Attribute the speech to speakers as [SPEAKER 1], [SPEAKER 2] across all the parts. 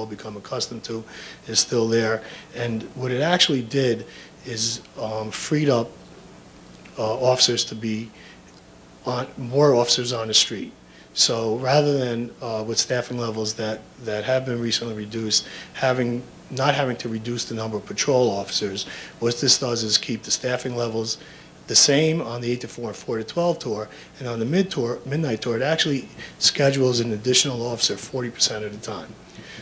[SPEAKER 1] all become accustomed to, is still there. And what it actually did is um, freed up uh, officers to be on, more officers on the street. So rather than uh, with staffing levels that, that have been recently reduced, having, not having to reduce the number of patrol officers, what this does is keep the staffing levels the same on the 8 to 4 and 4 to 12 tour, and on the mid tour, midnight tour, it actually schedules an additional officer 40% of the time.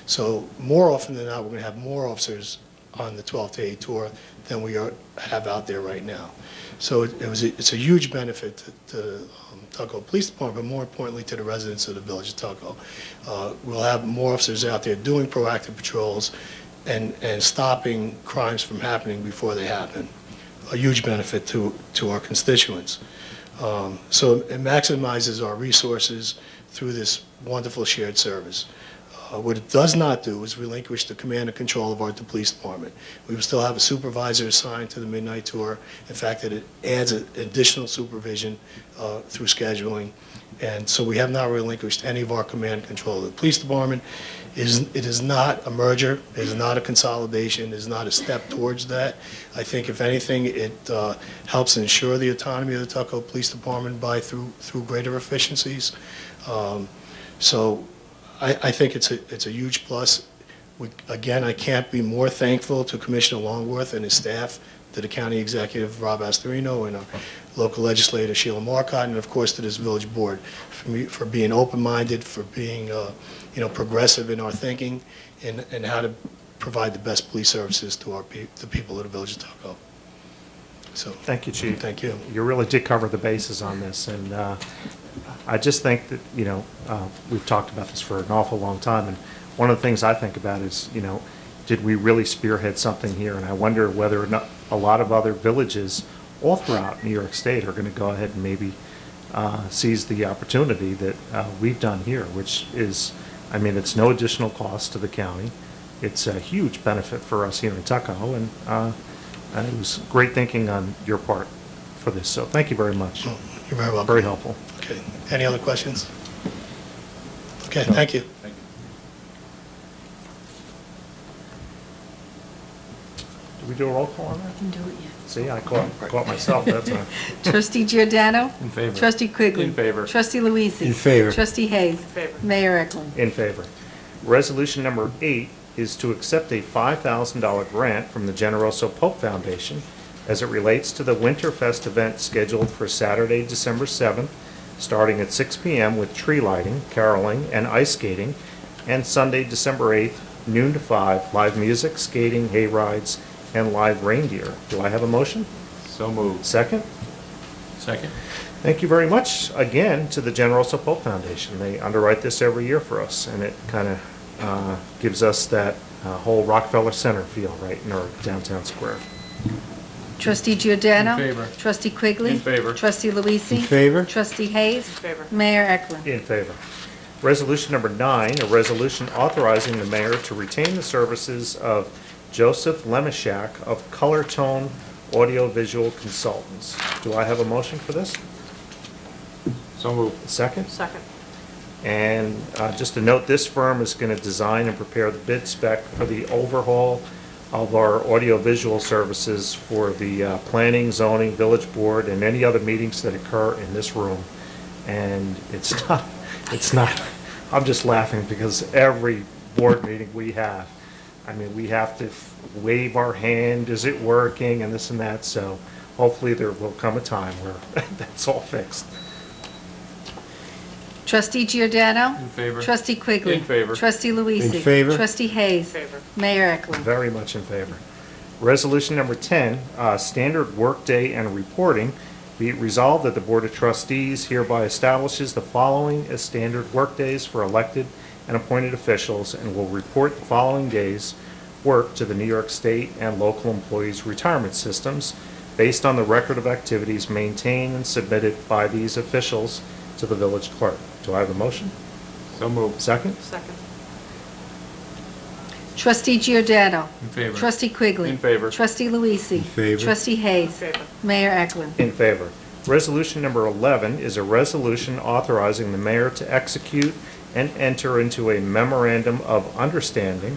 [SPEAKER 1] So more often than not, we're going to have more officers on the 12 to 8 tour than we are, have out there right now. So it it was, a- it's a huge benefit to- to um, Tuckahoe Police Department, but more importantly, to the residents of the village of Tuckahoe. Uh, We'll have more officers out there doing proactive patrols and, and stopping crimes from happening before they happen. A huge benefit to, to our constituents. Um, So it maximizes our resources through this wonderful shared service. Uh, What it does not do is relinquish the command and control of our police department. We will still have a supervisor assigned to the midnight tour. In fact, it adds a- additional supervision uh, through scheduling. And so we have not relinquished any of our command and control of the police department. It is- It is not a merger, it is not a consolidation, it is not a step towards that. I think if anything, it uh, helps ensure the autonomy of the Tuckahoe Police Department by through, through greater efficiencies. Um, So I, I think it's a, it's a huge plus. We- Again, I can't be more thankful to Commissioner Longworth and his staff, to the county executive, Rob Astorino, and our local legislator, Sheila Marcotte, and of course to this village board, for me, for being open-minded, for being, uh, you know, progressive in our thinking, and, and how to provide the best police services to our, pe- the people of the village of Tuckahoe. So,
[SPEAKER 2] Thank you, Chief.
[SPEAKER 1] thank you.
[SPEAKER 2] You really did cover the bases on this, and uh, I just think that, you know, uh, we've talked about this for an awful long time, and one of the things I think about is, you know, did we really spearhead something here? And I wonder whether or not a lot of other villages all throughout New York State are going to go ahead and maybe uh, seize the opportunity that uh, we've done here, which is, I mean, it's no additional cost to the county. It's a huge benefit for us here in Tuckahoe, and uh, and it was great thinking on your part for this, so thank you very much.
[SPEAKER 1] Oh, You're very welcome.
[SPEAKER 2] Very helpful.
[SPEAKER 1] Okay, any other questions? Okay, thank you.
[SPEAKER 2] Did we do a roll call on that?
[SPEAKER 3] Can do it yet.
[SPEAKER 2] See, I caught, caught myself that time.
[SPEAKER 3] Trustee Giordano.
[SPEAKER 4] In favor.
[SPEAKER 3] Trustee Quigley.
[SPEAKER 4] In favor.
[SPEAKER 3] Trustee Luise.
[SPEAKER 4] In favor.
[SPEAKER 3] Trustee Hayes. favor. Mayor Eklund.
[SPEAKER 2] In favor. Resolution number eight is to accept a $5,000 grant from the Generoso Pope Foundation as it relates to the Winterfest event scheduled for Saturday, December 7th, starting at 6 PM with tree lighting, caroling, and ice skating, and Sunday, December 8th, noon to 5, live music, skating, hay rides, and live reindeer. Do I have a motion?
[SPEAKER 4] So moved.
[SPEAKER 2] Second?
[SPEAKER 4] Second?
[SPEAKER 2] Thank you very much again to the Generoso Pope Foundation. They underwrite this every year for us, and it kind of uh, gives us that uh, whole Rockefeller Center feel right in our downtown square.
[SPEAKER 3] Trustee Giordano.
[SPEAKER 4] In favor.
[SPEAKER 3] Trustee Quigley.
[SPEAKER 4] In favor.
[SPEAKER 3] Trustee Luise.
[SPEAKER 4] In favor.
[SPEAKER 3] Trustee Hayes. favor. Mayor Eklund.
[SPEAKER 2] In favor. Resolution number nine, a resolution authorizing the mayor to retain the services of Joseph Lemishak of Color Tone Audiovisual Consultants. Do I have a motion for this?
[SPEAKER 4] So moved.
[SPEAKER 2] Second?
[SPEAKER 5] Second.
[SPEAKER 2] And uh, just to note, this firm is going to design and prepare the bid spec for the overhaul of our audiovisual services for the uh, planning, zoning, village board, and any other meetings that occur in this room. And it's not, it's not, I'm just laughing because every board meeting we have, I mean, we have to wave our hand, is it working, and this and that. So hopefully there will come a time where that's all fixed.
[SPEAKER 3] Trustee Giordano.
[SPEAKER 4] In favor.
[SPEAKER 3] Trustee Quigley.
[SPEAKER 4] In favor.
[SPEAKER 3] Trustee Luise.
[SPEAKER 4] In favor.
[SPEAKER 3] Trustee Hayes.
[SPEAKER 5] Favor.
[SPEAKER 3] Mayor Eklund.
[SPEAKER 2] Very much in favor. Resolution number 10, uh, standard workday and reporting. Be it resolved that the Board of Trustees hereby establishes the following as standard workdays for elected and appointed officials and will report the following days' work to the New York State and local employees' retirement systems based on the record of activities maintained and submitted by these officials to the village clerk. Do I have a motion?
[SPEAKER 4] So moved.
[SPEAKER 2] Second?
[SPEAKER 5] Second.
[SPEAKER 3] Trustee Giordano.
[SPEAKER 4] In favor.
[SPEAKER 3] Trustee Quigley.
[SPEAKER 4] In favor.
[SPEAKER 3] Trustee Luise. In favor. Trustee Hayes.
[SPEAKER 5] Favor.
[SPEAKER 3] Mayor Eklund.
[SPEAKER 2] In favor. Resolution number 11 is a resolution authorizing the mayor to execute and enter into a memorandum of understanding